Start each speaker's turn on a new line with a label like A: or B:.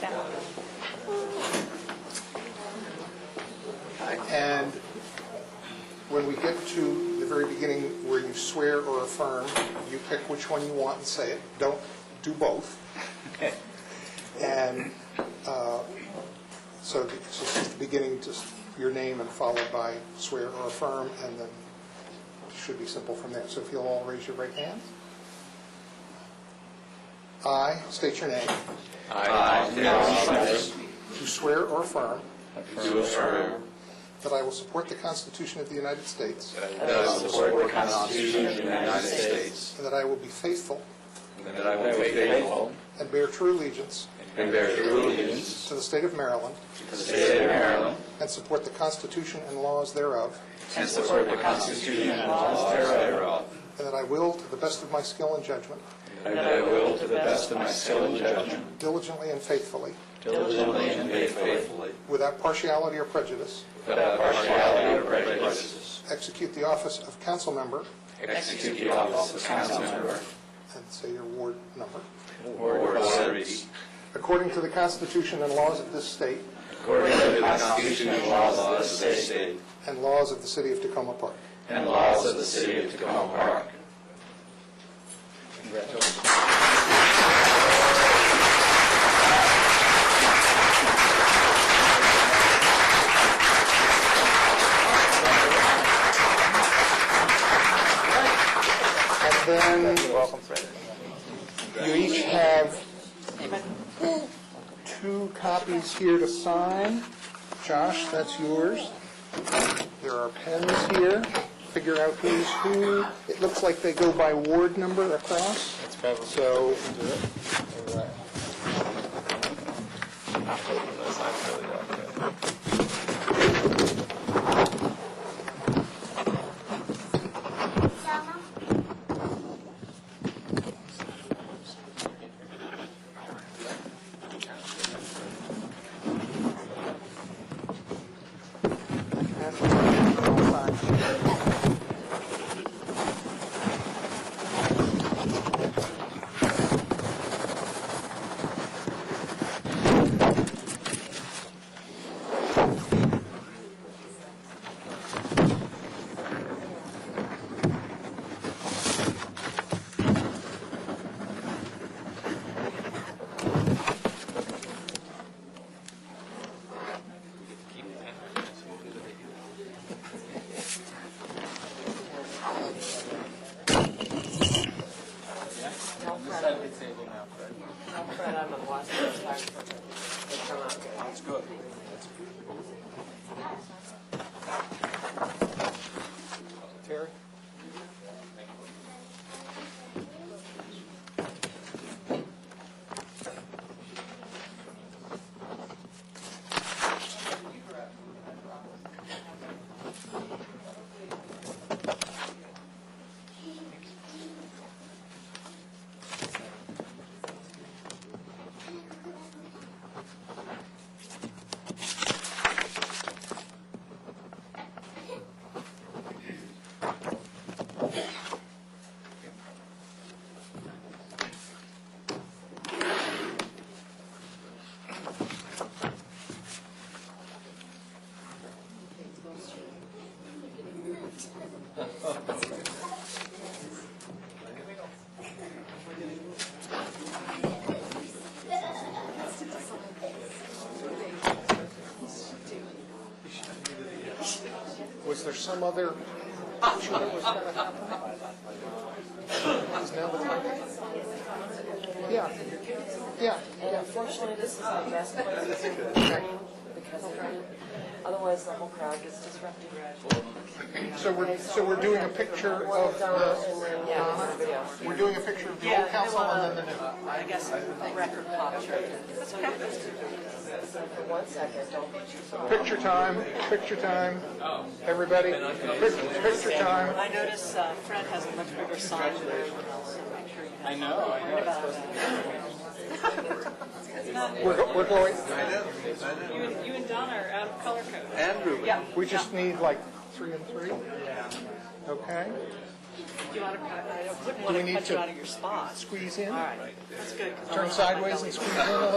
A: that one.
B: And when we get to the very beginning where you swear or affirm, you pick which one you want and say it. Don't do both. And uh, so the- so since the beginning, just your name and followed by swear or affirm, and then it should be simple from there. So if you'll all raise your right hand. I state your name.
C: I, Dennis
B: Do swear or affirm
C: Smith, do affirm
B: that I will support the Constitution of the United States
C: that I will support the Constitution of the United States,
B: and that I will be faithful
C: and that I will be faithful
B: and bear true allegiance
C: and bear true allegiance
B: to the state of Maryland
C: to the state of Maryland,
B: and support the Constitution and laws thereof,
C: and support the Constitution and laws thereof,
B: and that I will, to the best of my skill and judgment,
C: and that I will, to the best of my skill and judgment,
B: diligently and faithfully,
C: diligently and faithfully,
B: without partiality or prejudice,
C: without partiality or prejudice,
B: execute the office of council member,
C: execute the office of council member,
B: and say your ward number,
C: Ward 30,
B: according to the Constitution and laws of this state
C: according to the Constitution and laws of this state,
B: and laws of the city of Tacoma Park.
C: and laws of the city of Tacoma Park.
B: And then you each have two copies here to sign. Josh, that's yours. There are pens here. Figure out who's who. It looks like they go by ward number across. That's probably. So.
A: Fred, I'm on the watch list. Sorry for that. They come out good.
B: Terry? Was there some other? issue that was gonna happen? Is now the time? Yeah, yeah.
A: And unfortunately, this is the best place to do it because of rain. otherwise the whole crowd gets disrupted.
B: So we're, so we're doing a picture of
A: Donna
B: the,
A: and then, yeah, this is the video.
B: we're doing a picture of the old council and then the new.
A: I guess record capture. For one second, don't be too far.
B: Picture time, picture time, everybody, pic- picture time.
D: I notice uh, Fred has a much bigger sign than everyone else. I know, I
B: We're, go- we're going,
D: You and, you and Donna are out of color code.
C: Andrew.
D: Yeah.
B: we just need like three and three? Okay,
D: Do you want to, I wouldn't
B: Do
D: want
B: we
D: to
B: need
D: cut you
B: to-
D: out of your spot.
B: squeeze in,
D: All right, that's good. 'cause I'm
B: turn
D: not- I'm not
B: sideways
D: going
B: and squeeze in a little.